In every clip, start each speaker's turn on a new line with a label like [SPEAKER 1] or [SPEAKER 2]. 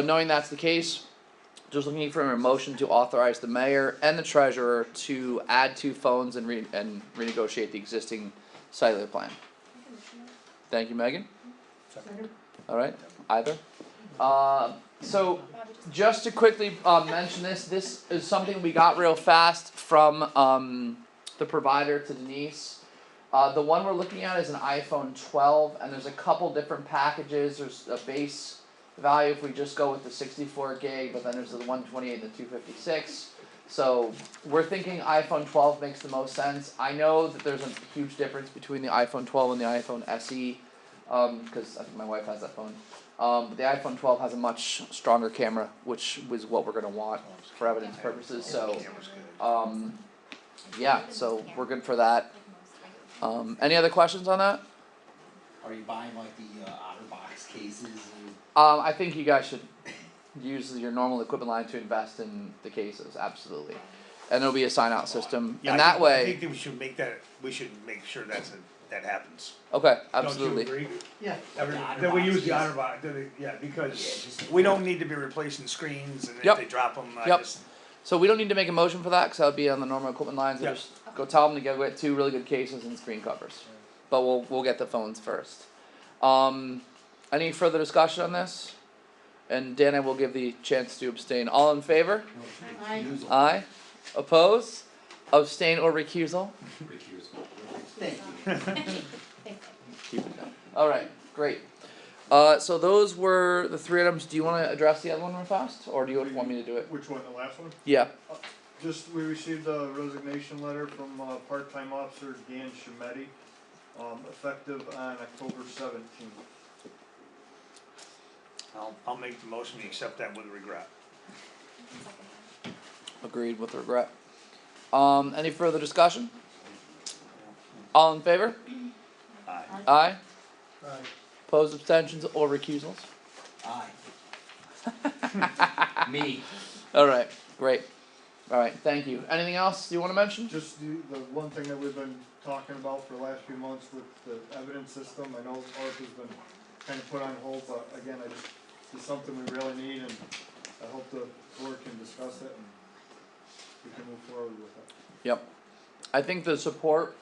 [SPEAKER 1] So knowing that's the case, just looking for a motion to authorize the mayor and the treasurer to add two phones and re- and renegotiate the existing cellular plan. Thank you, Megan. Alright, either. Uh, so, just to quickly, uh, mention this, this is something we got real fast from, um, the provider to Denise. Uh, the one we're looking at is an iPhone twelve, and there's a couple different packages, there's a base value if we just go with the sixty-four gig, but then there's the one twenty-eight and the two fifty-six. So we're thinking iPhone twelve makes the most sense. I know that there's a huge difference between the iPhone twelve and the iPhone SE, um, cause I think my wife has that phone. Um, but the iPhone twelve has a much stronger camera, which was what we're gonna want for evidence purposes, so, um, yeah, so we're good for that. Um, any other questions on that?
[SPEAKER 2] Are you buying like the uh, OtterBox cases? And
[SPEAKER 1] Um, I think you guys should use your normal equipment line to invest in the cases, absolutely. And there'll be a sign out system,
[SPEAKER 3] Yeah, I
[SPEAKER 1] and that
[SPEAKER 3] think- I
[SPEAKER 1] way,
[SPEAKER 3] think that we should make that, we should make sure that's, a- that happens.
[SPEAKER 1] okay,
[SPEAKER 3] Don't
[SPEAKER 1] absolutely,
[SPEAKER 3] you agree?
[SPEAKER 2] yeah,
[SPEAKER 3] Every-
[SPEAKER 2] the
[SPEAKER 3] That we
[SPEAKER 2] OtterBox,
[SPEAKER 3] use the
[SPEAKER 2] yes.
[SPEAKER 3] honor box, that it- yeah,
[SPEAKER 2] Yeah,
[SPEAKER 3] because
[SPEAKER 2] just-
[SPEAKER 3] we don't need to be replacing screens and
[SPEAKER 1] Yep.
[SPEAKER 3] if they drop them, I
[SPEAKER 1] Yep.
[SPEAKER 3] just,
[SPEAKER 1] so we don't need to make a motion for that, cause that would be on the normal equipment lines,
[SPEAKER 3] Yeah.
[SPEAKER 1] just go tell them to go get two really good cases and screen covers. But we'll, we'll get the phones first. Um, any further discussion on this? And Dan, I will give the chance to abstain, all in favor?
[SPEAKER 2] No, it's
[SPEAKER 4] Aye.
[SPEAKER 2] recusal.
[SPEAKER 1] Aye, oppose, abstain or recusal?
[SPEAKER 2] Thank you.
[SPEAKER 1] Alright, great. Uh, so those were the three items, do you wanna address the other one real fast, or do you want me to do it?
[SPEAKER 5] Which one, the last one?
[SPEAKER 1] Yeah,
[SPEAKER 5] Just, we received a resignation letter from, uh, part-time officer Dan Shimetti, um, effective on October seventeenth.
[SPEAKER 3] I'll, I'll make the motion to accept that with regret.
[SPEAKER 1] agreed with regret. Um, any further discussion? All in favor?
[SPEAKER 3] Aye.
[SPEAKER 1] Aye? Opposed, abstentions, or recusals?
[SPEAKER 2] Aye. Me.
[SPEAKER 1] Alright, great. Alright, thank you. Anything else you wanna mention?
[SPEAKER 5] Just the, the one thing that we've been talking about for the last few months with the evidence system, I know ours has been kind of put on hold, but again, I just, it's something we really need and I hope the board can discuss it and we can move forward with it.
[SPEAKER 1] Yep. I think the support,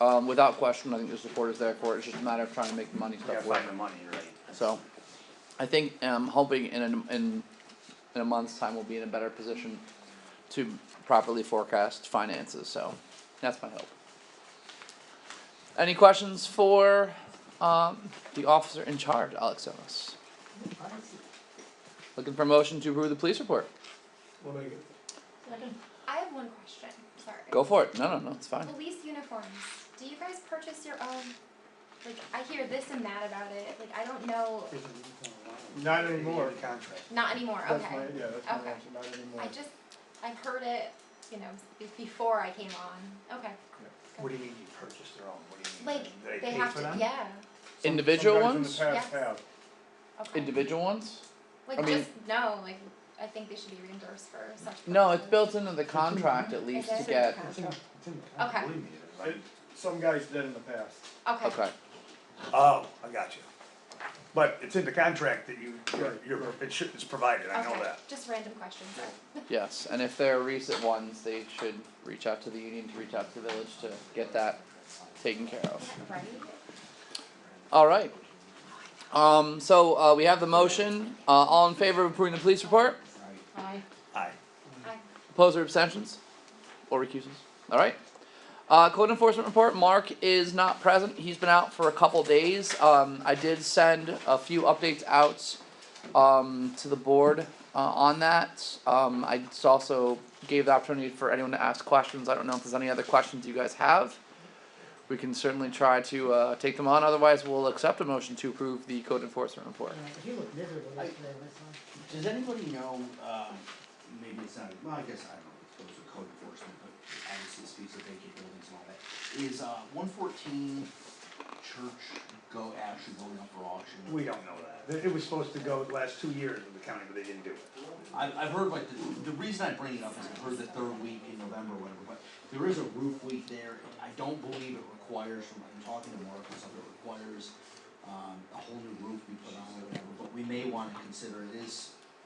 [SPEAKER 1] um, without question, I think the support is there for it, it's just a matter of trying to make the money
[SPEAKER 3] Yeah,
[SPEAKER 1] stuff work.
[SPEAKER 3] find the money, right?
[SPEAKER 1] So, I think I'm hoping in a, in in a month's time we'll be in a better position to properly forecast finances. So, that's my hope. Any questions for um, the officer in charge, Alex Ellis? Looking for a motion to approve the police report.
[SPEAKER 3] We'll make it.
[SPEAKER 4] I have one question, sorry.
[SPEAKER 1] Go for it. No, no, no. It's fine.
[SPEAKER 4] Police uniforms, do you guys purchase your own? Like, I hear this and that about it, like, I don't know,
[SPEAKER 5] Not anymore.
[SPEAKER 3] Contract.
[SPEAKER 4] not anymore,
[SPEAKER 5] That's my,
[SPEAKER 4] okay.
[SPEAKER 5] yeah, that's
[SPEAKER 4] Okay.
[SPEAKER 5] my answer, not anymore.
[SPEAKER 4] I just, I've heard it, you know, be- before I came on, okay.
[SPEAKER 3] What do you mean you purchased their own? What do you mean?
[SPEAKER 4] Like,
[SPEAKER 3] Did
[SPEAKER 4] they
[SPEAKER 3] pay
[SPEAKER 4] have
[SPEAKER 3] for
[SPEAKER 4] to,
[SPEAKER 3] them?
[SPEAKER 4] yeah,
[SPEAKER 5] Some-
[SPEAKER 1] Individual
[SPEAKER 5] some guys
[SPEAKER 1] ones?
[SPEAKER 5] in the
[SPEAKER 4] Yes.
[SPEAKER 5] past have.
[SPEAKER 4] okay.
[SPEAKER 1] Individual ones? I
[SPEAKER 4] Like,
[SPEAKER 1] mean-
[SPEAKER 4] just, no, like, I think they should be reimbursed for such.
[SPEAKER 1] No, it's
[SPEAKER 4] purposes.
[SPEAKER 1] built into the contract at least to get.
[SPEAKER 2] It's in- it's in the
[SPEAKER 4] Okay.
[SPEAKER 2] contract. Believe me, it's like-
[SPEAKER 5] Some guys did in the past.
[SPEAKER 4] Okay,
[SPEAKER 1] Okay.
[SPEAKER 3] Oh, I got you. But it's in the contract that you, you're,
[SPEAKER 5] Right,
[SPEAKER 3] you're,
[SPEAKER 5] right.
[SPEAKER 3] it should, it's provided, I know
[SPEAKER 4] okay,
[SPEAKER 3] that.
[SPEAKER 4] just random questions, sorry.
[SPEAKER 1] Yes, and if there are recent ones, they should reach out to the union to reach out to the village to get that taken care of.
[SPEAKER 4] Right?
[SPEAKER 1] Alright. Um, so, uh, we have the motion, uh, all in favor of approving the police report,
[SPEAKER 4] Aye.
[SPEAKER 3] Aye.
[SPEAKER 4] Aye.
[SPEAKER 1] opposed or abstentions? Or recusals, alright. Uh, code enforcement report, Mark is not present, he's been out for a couple days, um, I did send a few updates out. Um, to the board, uh, on that, um, I just also gave the opportunity for anyone to ask questions, I don't know if there's any other questions you guys have. We can certainly try to, uh, take them on, otherwise we'll accept a motion to approve the code enforcement report.
[SPEAKER 6] He looked miserable
[SPEAKER 2] I-
[SPEAKER 6] yesterday, that's all.
[SPEAKER 2] Does anybody know, um, maybe it's not, well, I guess, I don't know, if it goes to code enforcement, but obviously it speaks of vacant buildings and all that. Is, uh, one fourteen church go, actually going up for auction?
[SPEAKER 3] We don't know that. It- It was supposed to go the last two years of the county, but they didn't do it.
[SPEAKER 2] I, I've heard like, the, the reason I bring it up is I've heard the third week in November, or whatever, but there is a roof leak there. I don't believe it requires, from, I'm talking to Mark, or something, it requires, um, a whole new roof be put on or whatever, but we may wanna consider it is